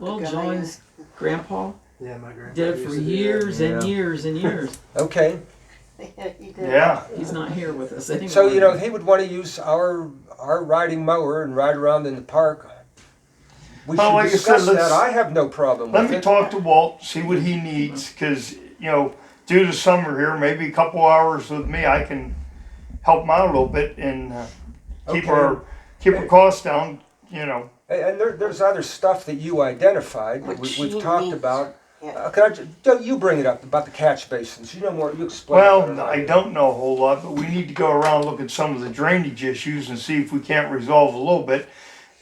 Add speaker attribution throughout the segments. Speaker 1: Well,
Speaker 2: Okay.
Speaker 1: John's grandpa
Speaker 3: Yeah, my grandpa
Speaker 1: did it for
Speaker 3: used to do that.
Speaker 1: years and
Speaker 4: Yeah.
Speaker 1: years and years.
Speaker 4: Okay,
Speaker 2: You did.
Speaker 5: Yeah,
Speaker 1: He's not here with us anymore.
Speaker 4: so you know he would want to use our our riding mower and ride around in the park. We
Speaker 5: Well,
Speaker 4: should
Speaker 5: like you said,
Speaker 4: discuss
Speaker 5: let's-
Speaker 4: that. I have no problem
Speaker 5: let
Speaker 4: with
Speaker 5: me
Speaker 4: it.
Speaker 5: talk to Walt, see what he needs, cause, you know, due to summer here, maybe a couple hours with me, I can help him out a little bit and uh, keep
Speaker 4: Okay.
Speaker 5: our, keep our costs down, you know.
Speaker 4: And- And there, there's other stuff that you identified that we,
Speaker 2: Which
Speaker 4: we've
Speaker 2: you
Speaker 4: talked
Speaker 2: need.
Speaker 4: about.
Speaker 2: Yeah.
Speaker 4: Uh, can I ju- don't you bring it up about the catch basins? You know more. You explain. it better
Speaker 5: Well,
Speaker 4: than
Speaker 5: I
Speaker 4: do.
Speaker 5: don't know a whole lot, but we need to go around, look at some of the drainage issues and see if we can't resolve a little bit.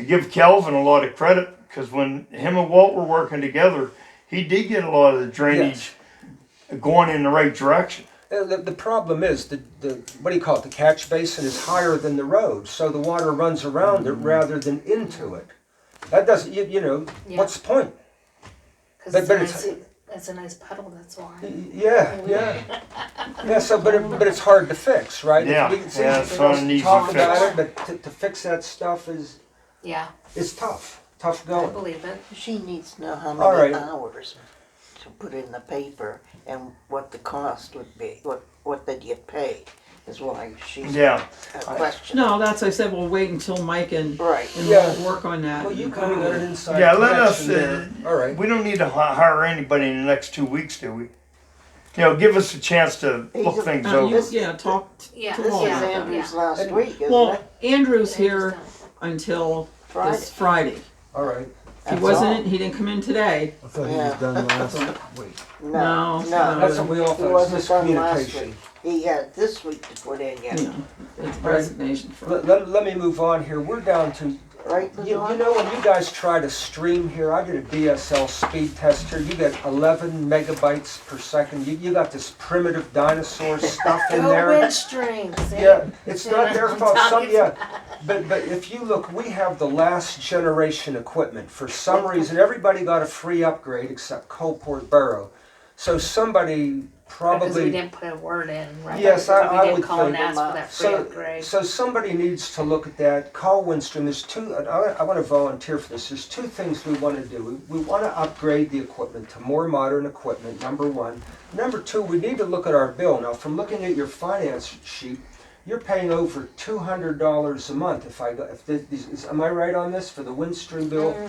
Speaker 5: I give Calvin a lot of credit, cause when him and Walt were working together, he did get a lot of the drainage going in the right direction.
Speaker 4: Uh, The, the problem is the, the what do you call it? The catch basin is higher than the road, so the water runs around
Speaker 5: Mm.
Speaker 4: it rather than into it. That doesn't you, you know
Speaker 6: Yeah.
Speaker 4: what's the point?
Speaker 6: Because
Speaker 4: But-
Speaker 6: it's,
Speaker 4: but
Speaker 6: a nice,
Speaker 4: it's-
Speaker 6: it's a nice puddle, that's
Speaker 4: Y-
Speaker 6: why.
Speaker 4: y- Yeah, yeah, yeah. So, but it, but it's hard to fix, right?
Speaker 5: Yeah,
Speaker 4: We can see
Speaker 5: yeah, it's
Speaker 4: everything
Speaker 5: not
Speaker 4: else
Speaker 5: an
Speaker 4: to
Speaker 5: easy
Speaker 4: talk about
Speaker 5: fix.
Speaker 4: it, but to, to fix that stuff is
Speaker 6: Yeah,
Speaker 4: is tough, tough
Speaker 6: I
Speaker 4: going.
Speaker 6: believe it.
Speaker 2: She needs to know how
Speaker 4: All
Speaker 2: many
Speaker 4: right.
Speaker 2: hours to put in the paper and what the cost would be, what, what they'd get paid, is why she's a
Speaker 5: Yeah,
Speaker 2: question.
Speaker 1: No, that's I said. We'll wait until Mike and
Speaker 2: Right.
Speaker 1: and
Speaker 4: Yeah.
Speaker 1: Walt work on that. Uh,
Speaker 4: Well, you kind of got an inside
Speaker 5: Yeah, let us,
Speaker 4: connection there.
Speaker 5: uh,
Speaker 4: All right.
Speaker 5: we don't need to hi- hire anybody in the next two weeks, do we? You know, give us a chance to look things
Speaker 1: Uh, you-
Speaker 5: over.
Speaker 1: yeah, talk t-
Speaker 6: Yeah,
Speaker 1: to
Speaker 2: This
Speaker 1: Walt.
Speaker 2: is
Speaker 6: Yeah, yeah.
Speaker 2: Andrew's last week, isn't
Speaker 1: Well,
Speaker 2: it?
Speaker 1: Andrew's
Speaker 6: They just
Speaker 1: here
Speaker 6: don't.
Speaker 1: until
Speaker 2: Friday.
Speaker 1: this Friday.
Speaker 4: All right.
Speaker 1: He
Speaker 2: That's
Speaker 1: wasn't.
Speaker 2: all.
Speaker 1: He didn't come in today.
Speaker 3: I thought he was
Speaker 2: Yeah.
Speaker 3: done last week.
Speaker 2: No,
Speaker 1: No,
Speaker 2: no.
Speaker 1: no.
Speaker 4: That's what we all
Speaker 2: He
Speaker 4: thought,
Speaker 2: wasn't done last
Speaker 4: miscommunication.
Speaker 2: week. He had this week to put in
Speaker 1: You
Speaker 2: yet,
Speaker 1: know, it's resignation for
Speaker 4: Let, let, let me move on here. We're down to, you,
Speaker 2: right,
Speaker 4: you know, when you guys try to stream here, I did a DSL speed test here. You get 11 megabytes per second. You, you got this primitive dinosaur stuff in
Speaker 6: Go
Speaker 4: there.
Speaker 6: Windstream, see?
Speaker 4: Yeah, it's not their
Speaker 6: I'm
Speaker 4: fault. Some,
Speaker 6: talking-
Speaker 4: yeah, but but if you look, we have the last generation equipment. For some reason, everybody got a free upgrade except Coalport Borough. So somebody
Speaker 6: Because we
Speaker 4: probably
Speaker 6: didn't put a word in, right?
Speaker 4: Yes, I-
Speaker 6: So
Speaker 4: I
Speaker 6: We
Speaker 4: would
Speaker 6: didn't call and
Speaker 4: think-
Speaker 6: ask for that free
Speaker 4: So,
Speaker 6: upgrade.
Speaker 4: so somebody needs to look at that. Call Winstrom. There's two. and I, I want to volunteer for this. There's two things we want to do. We, we want to upgrade the equipment to more modern equipment. Number one. Number two. We need to look at our bill now. From looking at your finance sheet, you're paying over two hundred dollars a month. If I go, if the, these, is, am I right on this for the Winstrom bill?
Speaker 6: Mm.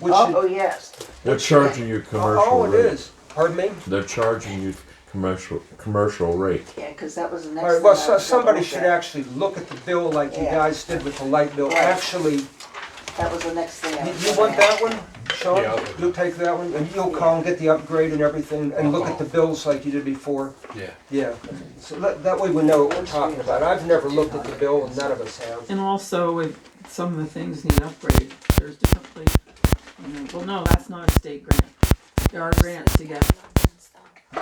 Speaker 4: Which
Speaker 2: Oh,
Speaker 4: should-
Speaker 2: oh, yes.
Speaker 7: They're charging you commercial
Speaker 4: oh, it
Speaker 7: rate.
Speaker 4: is. Pardon me.
Speaker 7: They're charging you commercial commercial rate.
Speaker 2: Yeah, because that was the next.
Speaker 4: All right,
Speaker 2: thing
Speaker 4: well,
Speaker 2: I
Speaker 4: so,
Speaker 2: was gonna
Speaker 4: somebody
Speaker 2: look
Speaker 4: should
Speaker 2: at.
Speaker 4: actually look at the bill like you
Speaker 2: Yeah.
Speaker 4: guys did with the light bill.
Speaker 2: Right.
Speaker 4: Actually,
Speaker 2: That was the next thing I
Speaker 4: You,
Speaker 2: was
Speaker 4: you
Speaker 2: gonna
Speaker 4: want
Speaker 2: ask.
Speaker 4: that one, Sean?
Speaker 8: Yeah, I'll take it.
Speaker 4: You'll take that one, and you'll call and get the upgrade and everything, and look at the bills like you did before?
Speaker 8: Yeah.
Speaker 4: Yeah, so that, that way we know what we're talking about. I've never looked at the bill, and none of us have.
Speaker 1: and also if some of the things need upgrade. There's different places. You know, well, no, that's not a state grant. There are grants to get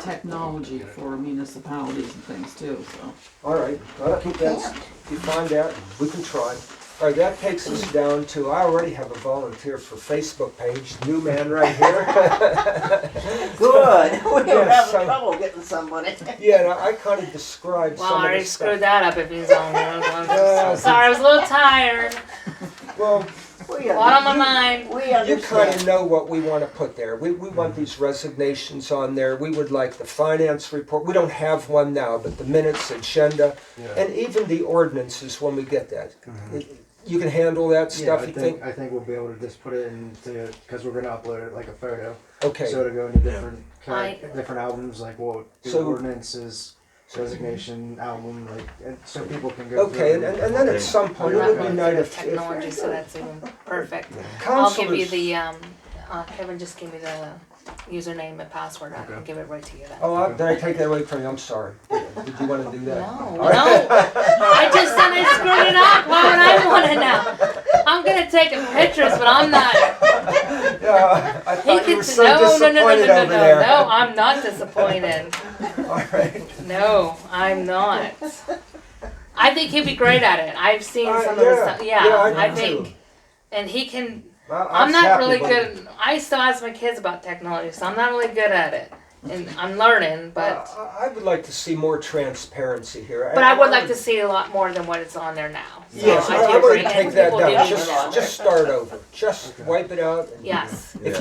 Speaker 1: technology for municipalities and things too. So.
Speaker 4: All right, well,
Speaker 2: You
Speaker 4: that's,
Speaker 2: can't.
Speaker 4: you find out, we can try. All right, that takes us down to, I already have a volunteer for Facebook page, new man right here.
Speaker 2: Good, we don't
Speaker 4: Yeah,
Speaker 2: have
Speaker 4: so-
Speaker 2: trouble getting somebody.
Speaker 4: Yeah, and I kind of described
Speaker 6: Well, I
Speaker 4: some of
Speaker 6: already
Speaker 4: the
Speaker 6: screwed
Speaker 4: stuff.
Speaker 6: that up if he's on there. I'm
Speaker 4: Yeah.
Speaker 6: so sorry, I was a little tired.
Speaker 4: Well,
Speaker 2: We
Speaker 6: A lot on
Speaker 2: under-
Speaker 6: my mind.
Speaker 2: We
Speaker 4: You kind of
Speaker 2: understand.
Speaker 4: know what we want to put there. We, we
Speaker 3: Mm-hmm.
Speaker 4: want these resignations on there. We would like the finance report. We don't have one now, but the minutes, agenda, and even the ordinances when we get that. You can handle that
Speaker 3: Mm-hmm. Yeah,
Speaker 4: stuff,
Speaker 3: I
Speaker 4: you
Speaker 3: think,
Speaker 4: think?
Speaker 3: I think we'll be able to just put it into, because we're gonna upload it like a photo. So
Speaker 4: Okay,
Speaker 3: it'll go into different, kind
Speaker 6: I-
Speaker 3: of, different albums, like we'll do
Speaker 4: So-
Speaker 3: ordinances, resignation album, like, and so people can go through.
Speaker 4: okay, and, and and then at some point, it would be nice if,
Speaker 6: Technology,
Speaker 4: if
Speaker 6: so that's even perfect. I'll give you
Speaker 4: counselors.
Speaker 6: the, um, uh, Kevin just gave me the username and password, I can give it right to you then.
Speaker 4: Oh, I- did I take that away from you? I'm sorry. Did you want to do that?
Speaker 6: No, no. I just said I screwed it up. Why would I want to know? I'm gonna take pictures, but I'm not.
Speaker 4: Yeah, I
Speaker 6: He
Speaker 4: thought you were
Speaker 6: gets
Speaker 4: so
Speaker 6: no, no, no, no, no,
Speaker 4: disappointed
Speaker 6: no,
Speaker 4: over
Speaker 6: no.
Speaker 4: there.
Speaker 6: No, I'm not disappointed.
Speaker 4: All right.
Speaker 6: No, I'm not. I think he'd be great at it. I've seen
Speaker 4: Uh,
Speaker 6: some of the
Speaker 4: yeah.
Speaker 6: stuff. Yeah,
Speaker 4: Yeah, I do
Speaker 6: I,
Speaker 4: too.
Speaker 6: think, and he can.
Speaker 4: Well,
Speaker 6: I'm
Speaker 4: was
Speaker 6: not
Speaker 4: happy
Speaker 6: really
Speaker 4: when-
Speaker 6: good. I still ask my kids about technology, so I'm not really good at it, and I'm learning, but.
Speaker 4: Uh, I I would like to see more transparency here.
Speaker 6: But I would like to see a lot more than what is on there now. So
Speaker 4: Yes,
Speaker 6: I
Speaker 4: I
Speaker 6: do
Speaker 4: I would
Speaker 6: agree.
Speaker 4: take that
Speaker 6: People
Speaker 4: down.
Speaker 6: do need to
Speaker 4: Just,
Speaker 6: know.
Speaker 4: just start over. Just wipe it out. and-
Speaker 6: Yes.